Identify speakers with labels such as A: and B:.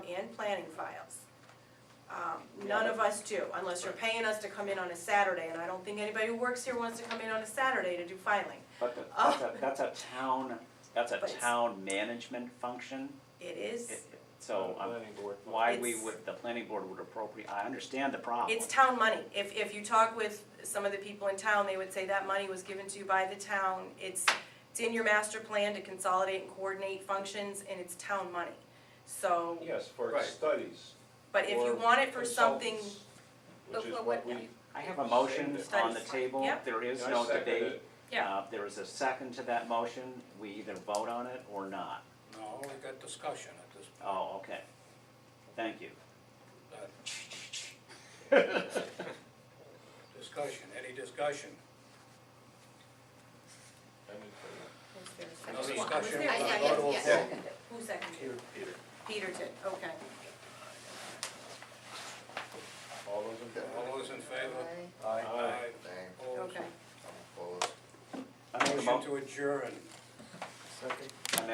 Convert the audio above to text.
A: and planning files. Um, None of us do, unless you're paying us to come in on a Saturday, and I don't think anybody who works here wants to come in on a Saturday to do filing.
B: But the-
A: Oh.
B: that's a, that's a town, that's a
A: But it's-
B: town management function,
A: It
B: It-
A: is,
B: it- so
C: Uh,
B: um,
C: planning board.
B: why we
A: It's-
B: would, the planning board would appropriate, I understand the problem.
A: it's town money. If, if you talk with some of the people in town, they would say that money was given to you by the town. It's, it's in your master plan to consolidate and coordinate functions, and it's town money. So,
C: Yes, for
D: Right.
C: studies.
A: but if you
C: or
A: want it for something,
C: consultants,
E: But
C: Which is
E: what
C: what
E: would
C: we.
B: I have a motion on the
A: Studies.
B: table,
A: Yep.
B: there is
C: I
B: no
C: second
B: debate.
C: it.
A: Yeah.
B: Uh, there is a second to that motion, we either vote on it or not.
D: No, we got discussion at this point.
B: Oh, okay, thank you.
D: Uh, Discussion, any discussion?
C: I mean, for-
A: was there a second?
D: No
A: Was
D: discussion,
A: there a
D: we're
E: I-
D: gonna
A: second?
D: go
E: yes,
D: to a
E: yes.
D: vote.
A: Who seconded?
C: Peter,
A: Peter did, okay.
C: all those in favor?
D: All those in favor?
C: Aye.
F: Name,
D: Opposed?
A: Okay.
F: I'm opposed.
B: I make a mo-
D: Motion to adjourn.
F: Second.